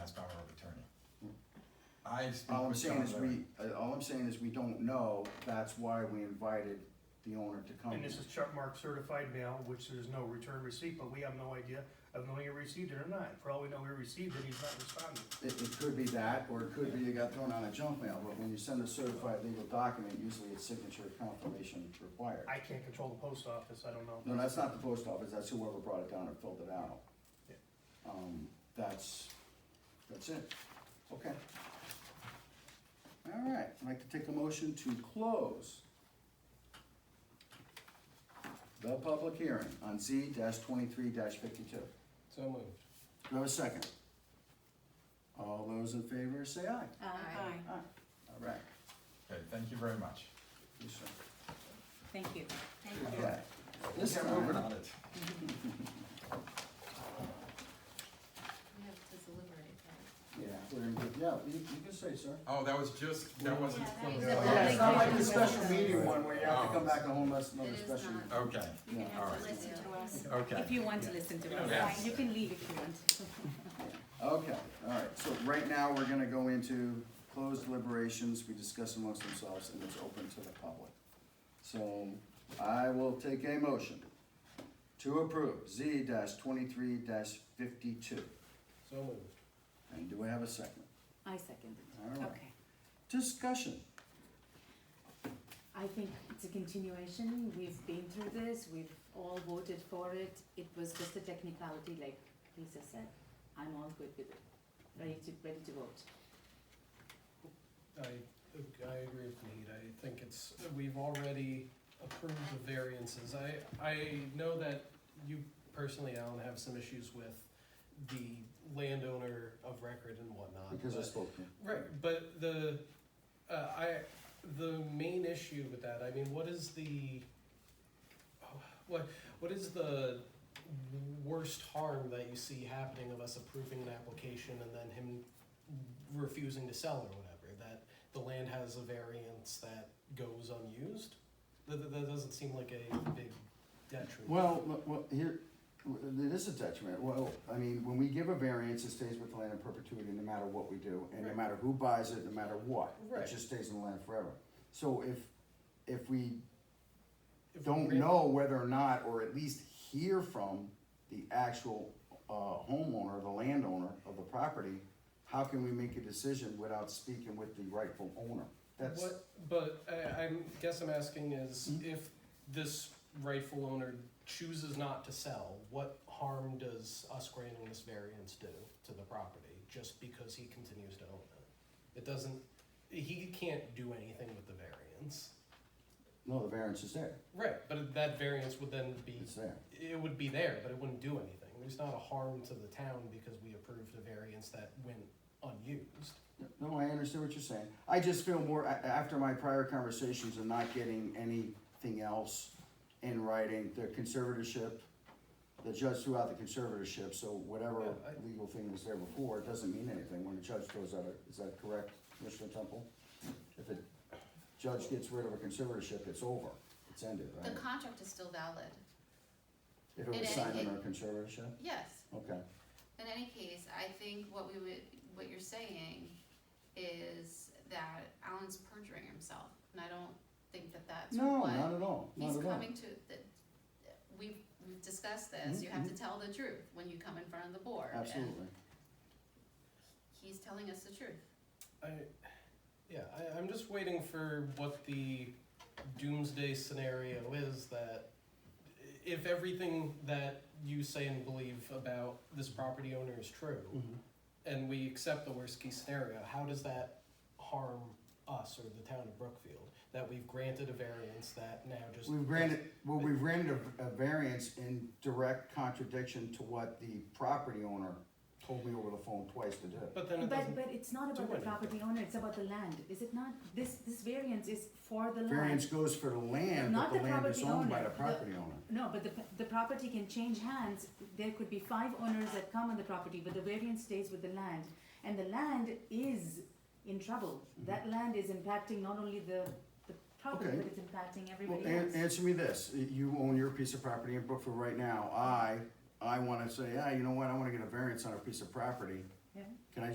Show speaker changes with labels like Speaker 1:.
Speaker 1: I speak
Speaker 2: All I'm
Speaker 1: with
Speaker 2: saying
Speaker 1: John
Speaker 2: is
Speaker 1: Larry.
Speaker 2: we, uh, all I'm saying is we don't know, that's why we invited the owner to come.
Speaker 3: And this is Chuck Mark certified mail, which there's no return receipt, but we have no idea of knowing he received it or not. For all we know, he received it, he's not responding.
Speaker 2: It, it could be that, or it could be it got thrown out of junk mail, but when you send a certified legal document, usually it's signature confirmation required.
Speaker 3: I can't control the post office, I don't know.
Speaker 2: No, that's not the post office, that's whoever brought it down and filled it out.
Speaker 3: Yeah.
Speaker 2: Um, that's, that's it, okay. All right, I'd like to take a motion to close the public hearing on Z twenty-three fifty-two. Do
Speaker 4: So moved.
Speaker 2: I have a second? All those in favor say aye.
Speaker 5: Uh,
Speaker 6: Aye.
Speaker 2: Aye. All right,
Speaker 1: Okay, thank you very much.
Speaker 2: yes, sir.
Speaker 6: Thank you. Thank
Speaker 2: Okay, this
Speaker 1: We're
Speaker 2: time,
Speaker 1: moving on it.
Speaker 6: We have to deliberate that.
Speaker 2: yeah, we're in good- yeah, you, you can say, sir.
Speaker 1: Oh, that was just, that wasn't.
Speaker 2: Yeah, it's not like the special meeting one where you have to
Speaker 1: Oh.
Speaker 2: come back and hold us another
Speaker 6: It is
Speaker 2: special.
Speaker 6: not.
Speaker 1: Okay,
Speaker 6: You can
Speaker 1: All
Speaker 6: have
Speaker 1: right.
Speaker 6: to listen to us.
Speaker 1: okay.
Speaker 5: If you want to listen to
Speaker 1: Yes.
Speaker 5: us, you can leave if you want.
Speaker 2: Okay, all right, so right now, we're gonna go into closed deliberations, we discuss amongst themselves, and it's open to the public. So, I will take a motion to approve Z twenty-three fifty-two,
Speaker 4: So moved.
Speaker 2: and do I have a second?
Speaker 5: I second it.
Speaker 2: All right.
Speaker 5: Okay.
Speaker 2: Discussion,
Speaker 5: I think it's a continuation. We've been through this. We've all voted for it. It was just a technicality, like Lisa said. I'm all good with it. Ready to, ready to vote.
Speaker 4: I, I agree with Nate, I think it's, we've already approved the variances. I, I know that you personally, Alan, have some issues with the landowner of record and whatnot.
Speaker 2: because I
Speaker 4: but-
Speaker 2: spoke to him.
Speaker 4: Right, but the, uh, I, the main issue with that, I mean, what is the, oh, what, what is the worst harm that you see happening of us approving an application and then him refusing to sell or whatever? That the land has a variance that goes unused? That, that- that doesn't seem like a big detriment.
Speaker 2: Well, look, well, here, it is a detriment, well, I mean, when we give a variance, it stays with the land in perpetuity, no matter what we do, and no
Speaker 4: Right.
Speaker 2: matter who buys it, no matter what.
Speaker 4: Right.
Speaker 2: It just stays in the land forever. So if, if we
Speaker 4: If we
Speaker 2: don't
Speaker 4: grant-
Speaker 2: know whether or not, or at least hear from the actual, uh, homeowner, the landowner of the property, how can we make a decision without speaking with the rightful owner? That's, Hmm?
Speaker 4: What, but I, I'm, guess I'm asking is if this rightful owner chooses not to sell, what harm does us granting this variance do to the property just because he continues to own it? It doesn't, he can't do anything with the variance.
Speaker 2: no, the variance is there,
Speaker 4: Right, but that variance would then be,
Speaker 2: it's there.
Speaker 4: it would be there, but it wouldn't do anything. There's not a harm to the town because we approved a variance that went unused.
Speaker 2: No, I understand what you're saying. I just feel more, a- after my prior conversations and not getting anything else in writing, the conservatorship, the judge threw out the conservatorship, so whatever
Speaker 4: Yeah, I-
Speaker 2: legal thing was there before, it doesn't mean anything when the judge throws out a, is that correct, Commissioner Temple? If a judge gets rid of a conservatorship, it's over, it's ended,
Speaker 6: The
Speaker 2: right?
Speaker 6: contract is still valid,
Speaker 2: If it was
Speaker 6: it-
Speaker 2: signed under a
Speaker 6: it-
Speaker 2: conservatorship,
Speaker 6: yes.
Speaker 2: okay.
Speaker 6: In any case, I think what we would, what you're saying is that Alan's perjuring himself, and I don't think that that's what.
Speaker 2: No, not at all, not
Speaker 6: He's
Speaker 2: at all.
Speaker 6: coming to, the, we've, we've discussed this, you have to tell the truth when you come in front of the board. and
Speaker 2: Mm-hmm. Absolutely.
Speaker 6: He's telling us the truth.
Speaker 4: I, yeah, I, I'm just waiting for what the doomsday scenario is that if everything that you say and believe about this property owner is true,
Speaker 2: Mm-hmm.
Speaker 4: and we accept the worst case scenario, how does that harm us or the town of Brookfield that we've granted a variance that now just
Speaker 2: We've granted, well, we've granted a, a variance in direct contradiction to what the property owner told me over the phone twice to do.
Speaker 4: But then it
Speaker 5: But,
Speaker 4: doesn't.
Speaker 5: but it's not
Speaker 4: do
Speaker 5: about the
Speaker 4: anything.
Speaker 5: property owner, it's about the land, is it not? This, this variance is for the land.
Speaker 2: Variance goes for the land, but
Speaker 5: Not
Speaker 2: the
Speaker 5: the
Speaker 2: land is
Speaker 5: property
Speaker 2: owned by
Speaker 5: owner,
Speaker 2: the
Speaker 5: the-
Speaker 2: property owner.
Speaker 5: No, but the, p- the property can change hands, there could be five owners that come on the property, but the variance stays with the land. And the land is in trouble, that land is impacting not only the, the property,
Speaker 2: Mm-hmm. Okay.
Speaker 5: but it's impacting
Speaker 2: Well,
Speaker 5: everybody
Speaker 2: an-
Speaker 5: else.
Speaker 2: answer me this, you own your piece of property in Brookfield right now, I, I wanna say, ah, you know what, I wanna get a variance on a piece of property.
Speaker 5: Yeah.
Speaker 2: Can I